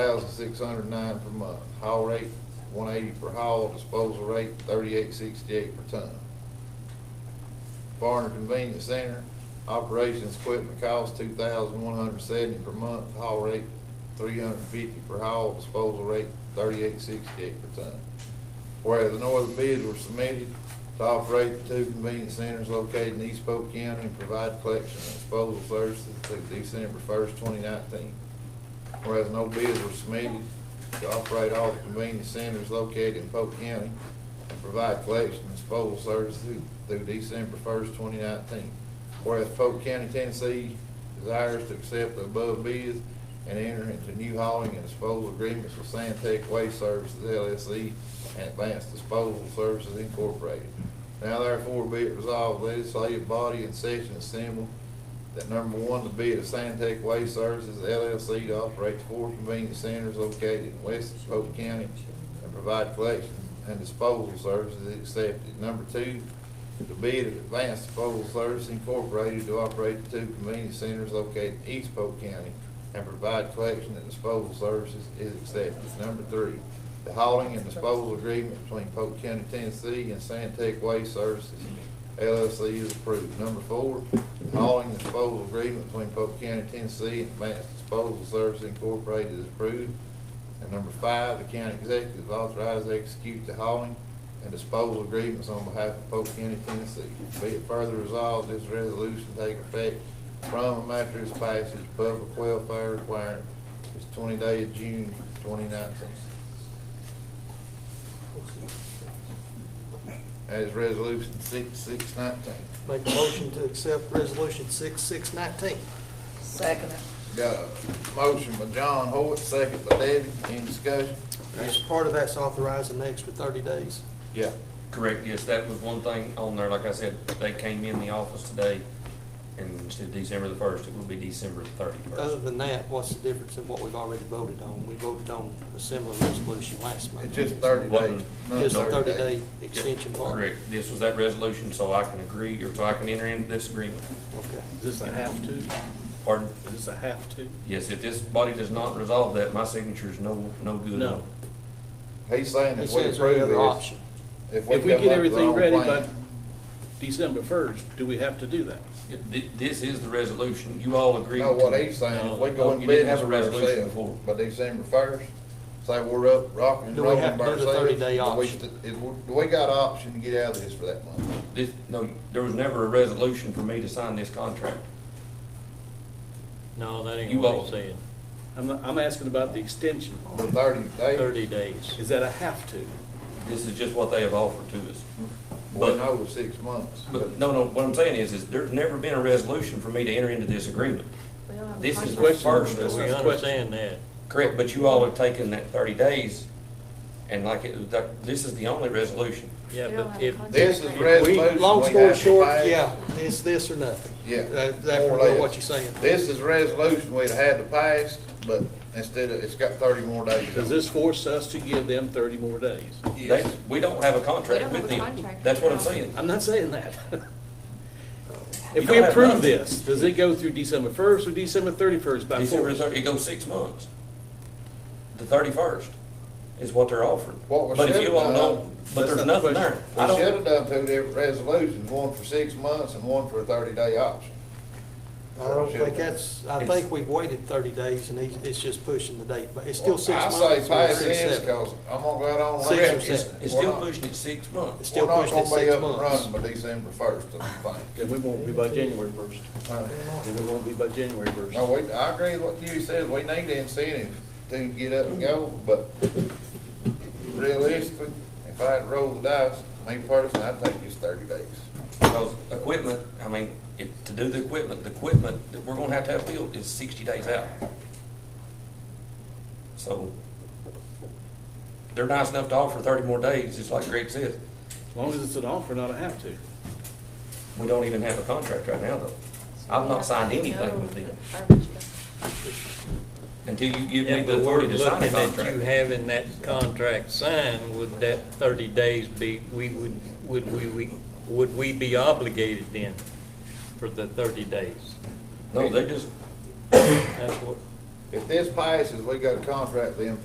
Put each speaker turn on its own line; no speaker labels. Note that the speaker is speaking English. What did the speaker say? thousand six hundred nine per month. Haul rate, one eighty per haul, disposal rate, thirty-eight sixty-eight per ton. Barn and Convenience Center, operations equipment cost two thousand one hundred seventy per month, haul rate, three hundred fifty per haul, disposal rate, thirty-eight sixty-eight per ton. Whereas no other bids were submitted to operate the two convenience centers located in East Polk County and provide collection and disposal services through December first, twenty nineteen. Whereas no bids were submitted to operate all the convenience centers located in Polk County and provide collection and disposal services through- through December first, twenty nineteen. Whereas Polk County, Tennessee desires to accept the above bids and enter into new hauling and disposal agreements with Santec Waste Services LLC and Advanced Disposal Services Incorporated. Now therefore be it resolved, legislative body in session assembled that number one, the bid of Santec Waste Services LLC to operate four convenience centers located in West Polk County and provide collection and disposal services is accepted. Number two, the bid of Advanced Disposal Service Incorporated to operate the two convenience centers located in East Polk County and provide collection and disposal services is accepted. Number three, the hauling and disposal agreement between Polk County, Tennessee and Santec Waste Services LLC is approved. Number four, the hauling and disposal agreement between Polk County, Tennessee and Advanced Disposal Services Incorporated is approved. And number five, the county executive is authorized to execute the hauling and disposal agreements on behalf of Polk County, Tennessee. Be it further resolved, this resolution take effect from and after its passage, public welfare requirement is twenty day of June, twenty nineteen. That is resolution six, six nineteen.
Make a motion to accept resolution six, six nineteen.
Second.
Got a motion by John Hoyt, second by Debbie, any discussion?
As part of that's authorizing the extra thirty days.
Yeah.
Correct, yes, that was one thing on there, like I said, they came in the office today, and instead of December the first, it will be December the
Other
thirty-first.
than that, what's the difference in what we've already voted on? We voted on a similar resolution last month.
It's just thirty days. another
Just a thirty
days.
day extension part.
Correct, this was that resolution, so I can agree, or so I can enter into this agreement.
Okay.
Is this a have to? Is
Pardon?
this a have to?
Yes, if this body does not resolve that, my signature is no, no good.
No.
He's saying
He
if we
says there's
approve
another
this,
option.
if we
If we
come up
get
with our
everything
own
ready by
plan.
December first, do we have to do that?
Th- This is the resolution, you all agree.
No, what
to-
he's saying, if we
No,
go in
you didn't
business
have a
for
resolution
ourselves
before.
by December first, say we're up, rocking and
Do we
rolling by
have to
ourselves.
do the 30-day
do we
option?
st- is- Do we got option to get out of this for that month?
This, no, there was never a resolution for me to sign this contract.
No, that ain't
You
what
won't.
he said.
I'm, I'm asking about the extension.
For thirty days,
Thirty days.
Is that a have to?
This is just what they have offered to us.
we
but-
know it's six months.
But, no, no, what I'm saying is, is there's never been a resolution for me to enter into this agreement. This is the
Question.
first,
That's
We
not a
understand that.
correct, but you all have taken that thirty days, and like, it- that- this is the only resolution.
Yeah,
They don't have
but if,
a contract.
This is
We-
We,
resolution.
long
we
story
have to
short,
pass.
yeah, it's this or nothing.
Yeah.
That-
more
That's
or
really
less.
what you're saying.
This is resolution we'd had to pass, but instead of, it's got thirty more days.
Does this force us to give them thirty more days?
They, we don't have a contract
We don't
with
have a
them.
contract.
That's what I'm saying.
I'm not saying that.
You
If
don't
we
have
approve
nothing.
this, does it go through December first or December thirty-first by
December
force?
thirty, it goes six months. The thirty-first is what they're offering.
What we
But if
should've
you all
done-
know, but
That's
there's
not the
nothing there.
We
I
should
don't,
have done two different resolutions, one for six months and one for a thirty-day option.
I don't think that's, I think we've waited thirty days and he's, it's just pushing the date, but it's still six months.
I say
or
pass
six,
this,
seven.
cause I'm gonna go out on.
Six
record.
or seven.
it's
We're
still
not-
pushing it six months.
Still
we're not
pushing it
gonna be
six
up and
months.
running By December first, I don't think.
Then we won't be by January first. Then we won't be by January first.
No, we, I agree with what you said, we need the incentive to get up and go, but realistically, if I had to roll the dice, me personally, I'd take this thirty days.
Because equipment, I mean, if, to do the equipment, the equipment that we're gonna have to have built is sixty days out. So, they're nice enough to offer thirty more days, just like Greg said.
As long as it's an offer, not a have to.
We don't even have a contract right now, though, I've not signed anything with them. until you give me
if
the
the word
authority to sign a
looking at you
contract.
having that contract signed, would that thirty days be, we would, would we, we, would we be obligated then for the thirty days?
No, they just,
That's what,
If this passes, we got a contract then